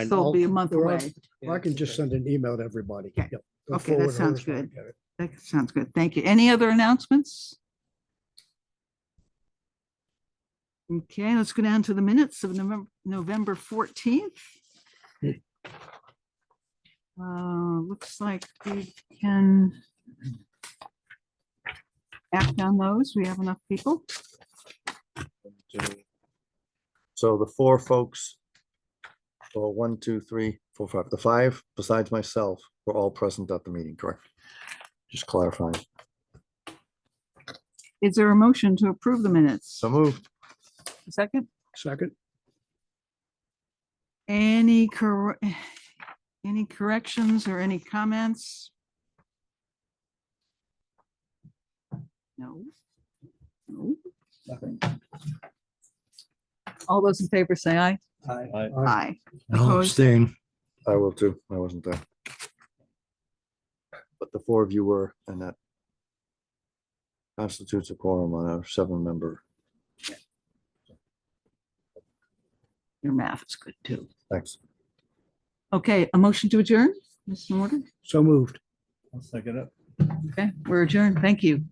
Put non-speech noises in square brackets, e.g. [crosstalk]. And So it'll I'll- be a month Or else- away. I can just send an email to everybody. Okay. Yep. Go Okay, that forward sounds hers when I good. get it. That sounds good. Thank you. Any other announcements? Okay, let's go down to the minutes of November, November fourteenth. Uh, looks like we can act on those. We have enough people. So the four folks, well, one, two, three, four, five, the five besides myself were all present at the meeting, correct? Just clarifying. Is there a motion to approve the minutes? So moved. Second, Second, any cor- [sighs] any corrections or any comments? No. No. All those in favor say aye. Aye. Aye. Opposed? I will too. I wasn't there. But the four of you were, and that constitutes a quorum on a seven-member. Your math is good too. Thanks. Okay, a motion to adjourn, Mr. Morgan? so moved. I'll second it. Okay, we're adjourned. Thank you.